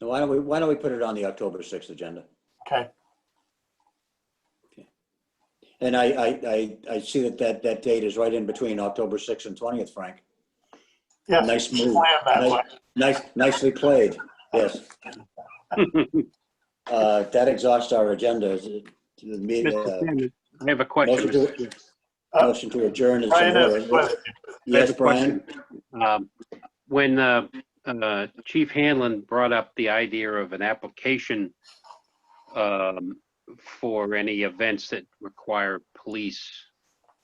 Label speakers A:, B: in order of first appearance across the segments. A: Now, Why don't we, why don't we put it on the October 6th agenda?
B: Okay,
A: And I, I, I, I see that that, that date is right in between October 6th and 20th, Frank.
B: yes.
A: Nice
B: plan
A: move.
B: that way.
A: Nice, nicely played, yes. Uh, That exhausts our agenda. Is it- the me-
C: Mr.
A: uh,
C: Chairman, I have a
A: Motion
C: question.
A: to, motion to adjourn is
B: uh, Brian has a
A: in order.
B: question.
C: I have
A: Yes,
C: a
A: Brian?
C: question. Um, When uh, uh, Chief Hanlon brought up the idea of an application um, for any events that require police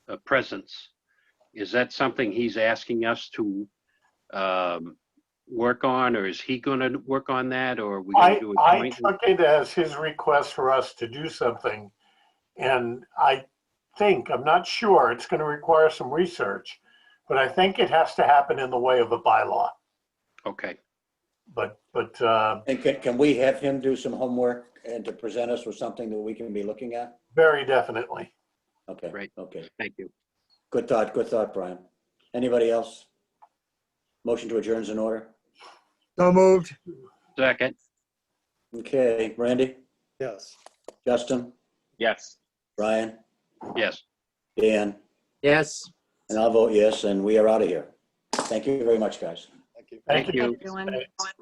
C: uh, presence, is that something he's asking us to um, work on, or is he going to work on that, or are we going
B: I,
C: to do a
B: I
C: joint?
B: took it as his request for us to do something. And I think, I'm not sure, it's going to require some research, but I think it has to happen in the way of a bylaw.
C: Okay,
B: But, but, uh,
A: And can, can we have him do some homework and to present us with something that we can be looking at?
B: very definitely.
A: Okay,
C: Right.
A: okay.
C: thank you.
A: Good thought, good thought, Brian. Anybody else? Motion to adjourn is in order.
D: So moved.
C: Second,
A: Okay, Randy,
D: Yes.
A: Justin,
E: Yes.
A: Brian,
C: yes.
A: Dan,
D: Yes.
A: and I'll vote yes, and we are out of here. Thank you very much, guys.
B: Thank
C: Thank
B: you.
C: you.
F: Everyone.